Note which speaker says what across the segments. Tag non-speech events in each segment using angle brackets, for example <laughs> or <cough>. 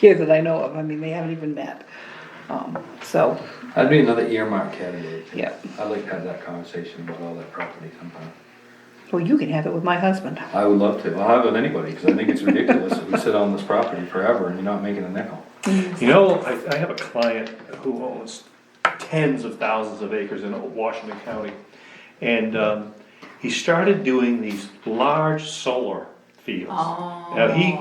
Speaker 1: here that I know of, I mean, they haven't even met. Um, so,
Speaker 2: That'd be another earmark candidate.
Speaker 1: yeah,
Speaker 2: I'd like to have that conversation about all that property sometime.
Speaker 1: well, you can have it with my husband.
Speaker 2: I would love to, I'll have it with anybody, because I think it's ridiculous that we sit on this property forever and you're not making a nickel.
Speaker 3: You know, I, I have a client who owns tens of thousands of acres in Washington County. And, um, he started doing these large solar fields. Now, he,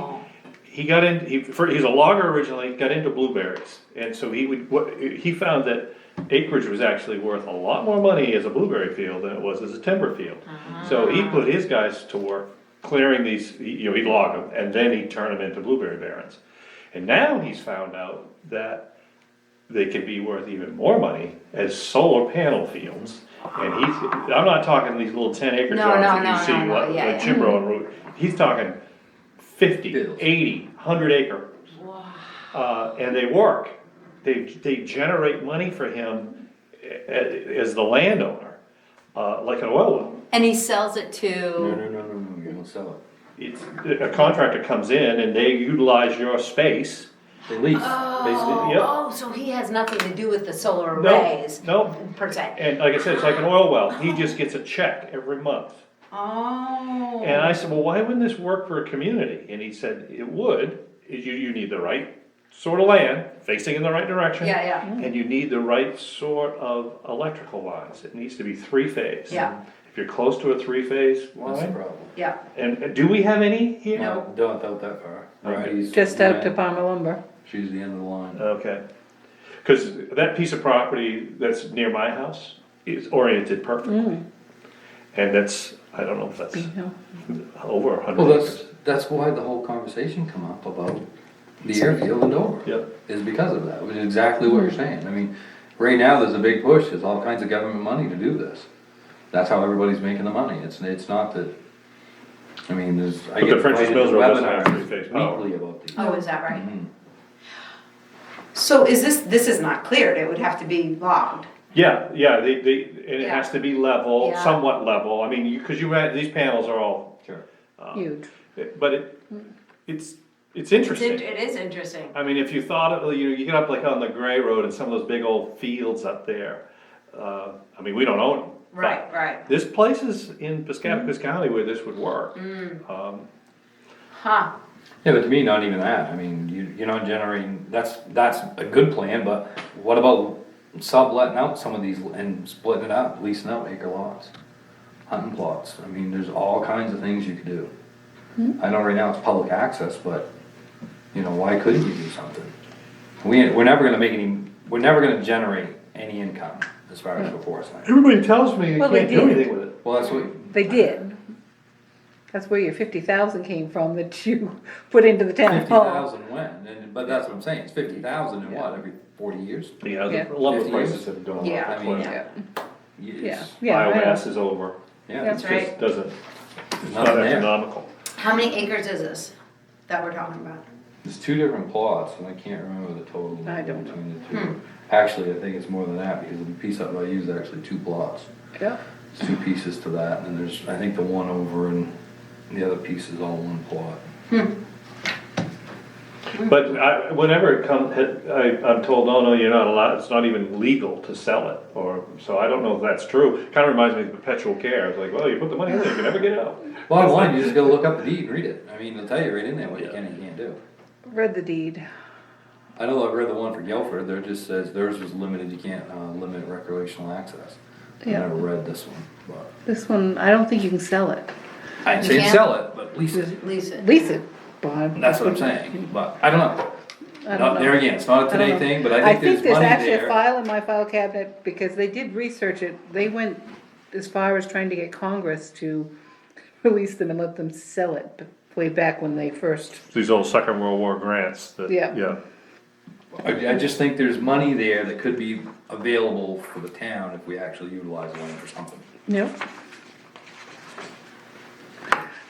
Speaker 3: he got in, he, for, he's a logger originally, got into blueberries, and so he would, what, he found that acreage was actually worth a lot more money as a blueberry field than it was as a timber field. So
Speaker 4: Ah.
Speaker 3: he put his guys to work clearing these, he- you know, he'd log them, and then he'd turn them into blueberry barrens. And now he's found out that they could be worth even more money as solar panel fields. And he's, I'm not talking these little ten acre
Speaker 4: No,
Speaker 3: jobs
Speaker 4: no,
Speaker 3: that
Speaker 4: no,
Speaker 3: you see,
Speaker 4: no, no,
Speaker 3: like,
Speaker 4: yeah,
Speaker 3: like
Speaker 4: yeah.
Speaker 3: Chimbrow
Speaker 4: <laughs>
Speaker 3: and Route, he's talking fifty,
Speaker 2: Bills.
Speaker 3: eighty, hundred acre. Uh, and they work, they, they generate money for him a- a- as the landowner, uh, like an oil well.
Speaker 4: And he sells it
Speaker 2: No,
Speaker 4: to,
Speaker 2: no, no, no, no, you don't sell it.
Speaker 3: It's, a contractor comes in and they utilize your space.
Speaker 2: They lease,
Speaker 4: oh,
Speaker 2: basically.
Speaker 3: yep.
Speaker 4: oh, so he has nothing to do with the solar
Speaker 3: No,
Speaker 4: arrays
Speaker 3: No,
Speaker 4: per se.
Speaker 3: and like I said, it's like an oil well, he just gets a check every month.
Speaker 4: Oh.
Speaker 3: And I said, well, why wouldn't this work for a community? And he said, it would, you, you need the right sort of land, facing in the right direction.
Speaker 4: Yeah, yeah.
Speaker 3: And you need the right sort of electrical lines, it needs to be three-phase.
Speaker 4: Yeah.
Speaker 3: If you're close to a three-phase
Speaker 2: That's the
Speaker 3: line,
Speaker 2: problem.
Speaker 4: yeah.
Speaker 3: and, and do we have any here?
Speaker 2: No, don't doubt that far. Variety's
Speaker 1: Just out to
Speaker 2: the end.
Speaker 1: Palmer Lumber.
Speaker 2: She's the end of the line.
Speaker 3: Okay. Cause that piece of property that's near my house is oriented perfectly.
Speaker 4: Mm.
Speaker 3: And that's, I don't know if that's
Speaker 1: you know.
Speaker 3: over a hundred.
Speaker 2: Well, that's,
Speaker 3: acres.
Speaker 2: that's why the whole conversation come up about the airfield in Dover.
Speaker 3: Yep.
Speaker 2: Is because of that, which is exactly what you're saying. I mean, right now, there's a big push, there's all kinds of government money to do this. That's how everybody's making the money. It's, it's not that, I mean, there's. I
Speaker 3: But the
Speaker 2: get
Speaker 3: French's
Speaker 2: invited to
Speaker 3: Mills Road doesn't have
Speaker 2: webinars
Speaker 3: three-phase power.
Speaker 2: Weekly about these.
Speaker 4: Oh, is that right?
Speaker 3: Mm-hmm.
Speaker 4: So is this, this is not cleared, it would have to be logged.
Speaker 3: Yeah, yeah, they, they, and it
Speaker 4: Yeah.
Speaker 3: has to be level,
Speaker 4: Yeah.
Speaker 3: somewhat level, I mean, you, cause you had, these panels are all,
Speaker 2: Sure.
Speaker 1: Huge.
Speaker 3: but it, it's, it's
Speaker 4: It's in-
Speaker 3: interesting.
Speaker 4: It is interesting.
Speaker 3: I mean, if you thought, of- you know, you get up like on the Gray Road and some of those big old fields up there, uh, I mean, we don't own them. but
Speaker 4: Right, right.
Speaker 3: There's places in Piscataquis County where this would work. Um,
Speaker 4: Huh.
Speaker 2: Yeah, but to me, not even that. I mean, you, you're not generating, that's, that's a good plan, but what about subletting out some of these and splitting it out, leasing out acre lots? Hunting plots. I mean, there's all kinds of things you could do. I know right now it's public access, but, you know, why couldn't you do something? We, ain't- we're never gonna make any, we're never gonna generate any income as far as the forest land.
Speaker 3: Everybody tells me you
Speaker 1: Well, they
Speaker 3: can't do
Speaker 1: did.
Speaker 3: anything with it.
Speaker 2: Well, that's what,
Speaker 1: They did. That's where your fifty thousand came from that you <laughs> put into the town
Speaker 2: fifty
Speaker 1: hall.
Speaker 2: thousand when, and, but that's what I'm saying, it's fifty thousand in what, every forty years?
Speaker 3: Yeah,
Speaker 1: Yeah.
Speaker 3: the lumber
Speaker 2: Fifty years.
Speaker 3: prices have gone
Speaker 4: Yeah,
Speaker 3: up.
Speaker 2: I mean,
Speaker 3: Well,
Speaker 1: Yeah, yeah,
Speaker 2: Yes.
Speaker 1: yeah. I know.
Speaker 3: Biomass is over,
Speaker 2: Yeah.
Speaker 1: That's
Speaker 3: It just doesn't, it's
Speaker 2: Nothing
Speaker 3: not
Speaker 2: there.
Speaker 3: economical.
Speaker 4: How many acres is this that we're talking about?
Speaker 2: There's two different plots, and I can't remember the total
Speaker 1: I don't know. Hmm.
Speaker 2: between the two. Actually, I think it's more than that, because the piece up I use is actually two plots.
Speaker 1: Yeah.
Speaker 2: It's two pieces to that, and there's, I think the one over and the other piece is all one plot.
Speaker 3: But I, whenever it comes, I, I'm told, oh, no, you're not allowed, it's not even legal to sell it, or, so I don't know if that's true. Kinda reminds me of perpetual care, it's like, well, you put the money in, there, you can never get out.
Speaker 2: Bottom line, you just gotta look up the deed and read it. I mean, it'll tell you right in there what you can and can't do.
Speaker 1: Read the deed.
Speaker 2: I know I've read the one for Guilford, there just says theirs was limited, you can't, uh, limit recreational access. I
Speaker 1: Yeah.
Speaker 2: never read this one, but.
Speaker 1: This one, I don't think you can sell it.
Speaker 2: I'd
Speaker 4: You
Speaker 2: say
Speaker 4: can't?
Speaker 2: sell it, but lease it,
Speaker 4: Lease it.
Speaker 1: Lease it, Bob.
Speaker 2: that's what I'm saying, but I don't know.
Speaker 1: I
Speaker 2: Not
Speaker 1: don't
Speaker 2: there
Speaker 1: know.
Speaker 2: again, it's not a
Speaker 1: Um, I don't
Speaker 2: today
Speaker 1: know.
Speaker 2: thing, but I think there's money there.
Speaker 1: actually a file in my file cabinet, because they did research it, they went as far as trying to get Congress to <laughs> release them and let them sell it, but way back when they first,
Speaker 3: These old second world war grants that,
Speaker 1: Yeah.
Speaker 3: yeah.
Speaker 2: I, I just think there's money there that could be available for the town if we actually utilize the land for something.
Speaker 1: no?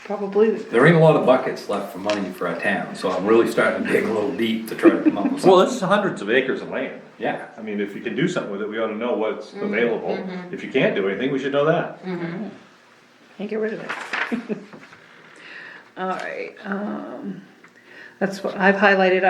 Speaker 1: Probably,
Speaker 2: There ain't a lot of buckets left for money for our town, so I'm really starting to dig a little deep to try to come up with
Speaker 3: Well,
Speaker 2: something.
Speaker 3: this is hundreds of acres of land.
Speaker 2: Yeah,
Speaker 3: I mean, if you can do something with it, we ought to know what's available. If you can't do anything, we should know that.
Speaker 1: can't get rid of it. <laughs> All right, um, that's what, I've highlighted